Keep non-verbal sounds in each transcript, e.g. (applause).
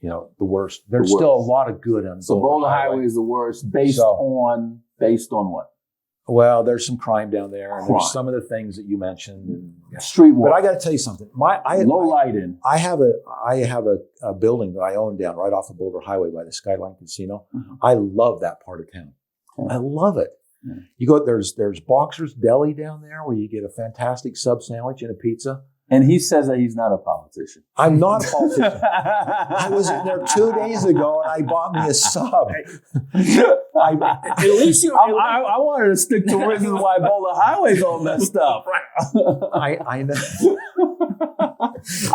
you know, the worst. There's The still a worst. lot of good on So Bola Highway is the worst based So- on based on what? Well, there's some crime down there, and Crime. there's some of the things that you mentioned. And, Street But walk, I got to tell you something. My I low lighting. I have a I have a, a building that I own down right off of Boulder Highway by the Skyline Casino. Mhm. I love that part of town. Yeah. I love it. Yeah. You go there's there's Boxer's Deli down there where you get a fantastic sub sandwich and a pizza. And he says that he's not a politician. I'm (laughs) not a politician. I I was in there two days ago and I bought me a sub. (laughs) I, At least you. I, I, I wanted to stick to reasons why Bola Highway's all messed up. I I know.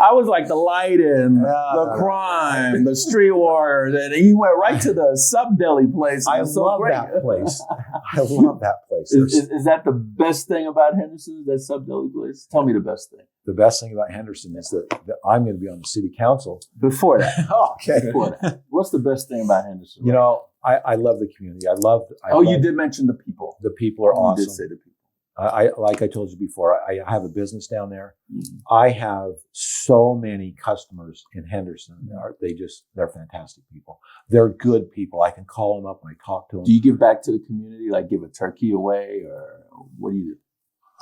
I was like the lighting, No, the no, no. crime, the street wars, and he went right to the sub deli place. I It's so love great. that (laughs) place. I love that place. Is, There's- is, is that the best thing about Henderson? That sub deli place? Tell me the best thing. the best thing about Henderson is that, that I'm going to be on the city (laughs) council. Before that, okay. before that, what's the best thing about Henderson? You know, I, I love the community. I love. I oh, you love- did mention the people. The people are You did say awesome. the people. I, I like I told you before. I, I have a business down there. Mhm. I have so many customers in Henderson. They are- They just they're fantastic people. They're good people. I can call them up and I talk to them. Do you give back to the community, like give a turkey away, or what do you do?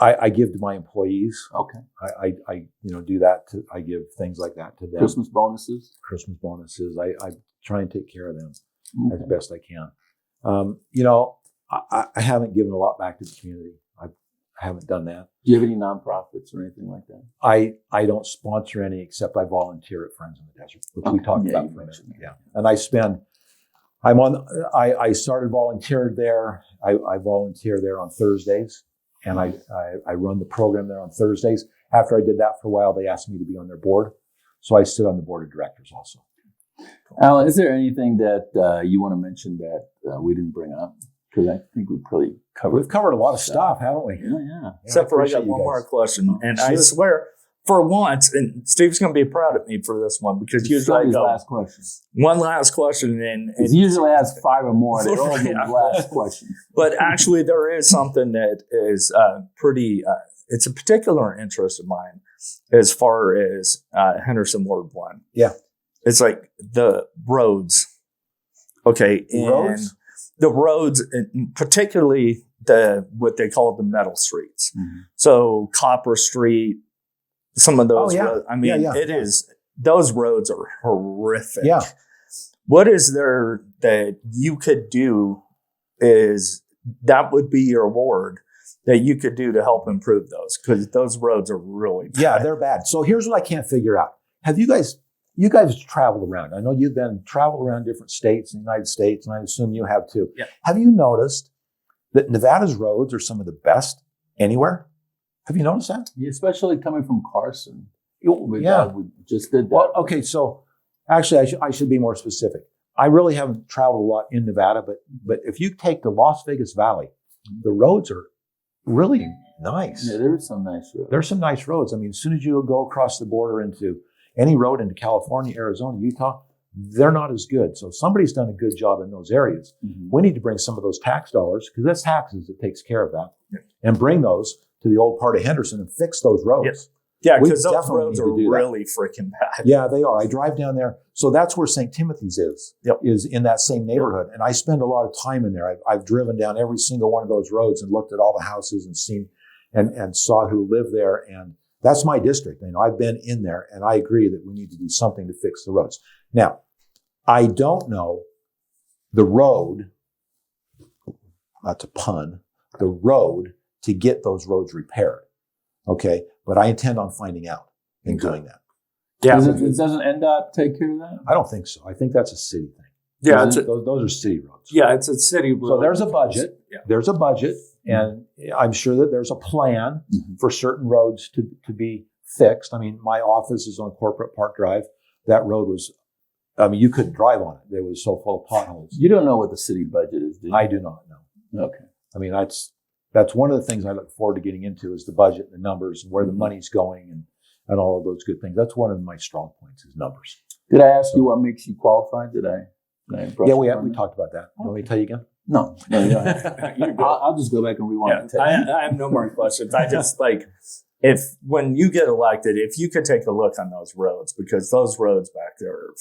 I, I give to my employees. Okay, I, I, I you know do that. To, I give things like that to them. Christmas bonuses. Christmas bonuses. I, I try and take care of them. as Okay. best I can. Um, you know, I- I, I haven't given a lot back to the community. I, I haven't done that. Do you have any nonprofits or anything like that? I, I don't sponsor any except I volunteer at Friends in the Desert, which we Okay. talked Yeah, about you for a minute. mentioned that. Yeah. And I spend, I'm on, I, I started volunteered there. I, I volunteer there on Thursdays and I, I, I run the program there on Thursdays. After I did that for a while, they asked me to be on their board. So I sit on the board of directors also. Alan, is there anything that uh, you want to mention that uh, we didn't bring up? Because I think we probably covered. We've covered a lot of stuff, haven't we? Yeah, yeah. Except for I appreciate got you one guys. more question, and I Sure. swear, for once, and Steve's going to be proud of me for this one because usually I Somebody's go last question. one last question, and, It and usually has five or more. (laughs) They're all the Yeah. last question. but actually there is something that is uh, pretty. Uh, it's a particular interest of mine as far as uh, Henderson Ward One. Yeah. it's like the roads. Okay, and Roads? the roads, and particularly the what they call the metal streets. Mm-hmm. Mhm. So Copper Street, some of those. Oh, yeah. roads, I mean, Yeah, yeah. it is those roads are horrific. Yeah. What is there that you could do? Is that would be your award that you could do to help improve those because those roads are really bad. Yeah, they're bad. So here's what I can't figure out. Have you guys you guys traveled around? I know you've been traveled around different states in the United States, and I assume you have too. Yeah. Have you noticed that Nevada's roads are some of the best anywhere? Have you noticed that? Yeah, especially coming from Carson. We, yeah. uh, we just did that. Well, okay, so actually I should I should be more specific. I really haven't traveled a lot in Nevada, but but if you take the Las Vegas Valley, the roads are really nice. Yeah, there was some nice road. there's some nice roads. I mean, as soon as you go across the border into any road into California, Arizona, Utah, they're not as good. So somebody's done a good job in those areas. Mhm. We need to bring some of those tax dollars because that's taxes that takes care of that, and bring those to the old part of Henderson and fix those roads. yeah, We because those definitely roads need are to do that. really freaking bad. Yeah, they are. I drive down there, so that's where St. Timothy's is. Yep. Is in that same neighborhood, and I spend a lot of time in there. I've, I've driven down every single one of those roads and looked at all the houses and seen, and and saw who lived there. And that's my district. You know, I've been in there, and I agree that we need to do something to fix the roads. Now, I don't know the road. Not to pun, the road to get those roads repaired. Okay, but I intend on finding out and Okay. doing that. Yeah, Doesn't, it doesn't NDOT take care of that? I don't think so. I think that's a city thing. yeah, those, it's a, those, those are city roads. yeah, it's a city road. So there's a budget. Yeah. Mm-hmm. There's a budget, and I'm sure that there's a plan Mhm. for certain roads to, to be fixed. I mean, my office is on Corporate Park Drive. That road was, I mean, you couldn't drive on it. It was so full of potholes. You don't know what the city budget is, do you? I do not know. okay. I mean, that's that's one of the things I look forward to getting into is the budget, and the numbers, and where Mm-hmm. the money's going, and and all of those good things. That's one of my strong points is numbers. Did I ask you what makes you qualified? Did I? Did I brush Yeah, we up have, on we that? talked about that. Let me to tell you again. No, no, you don't have (laughs) to. You're good. I'll, I'll just go back and rewind. Yeah, the tape. I, I have no more questions. I just like if when you get elected, if you could take a look on those roads because those roads back there are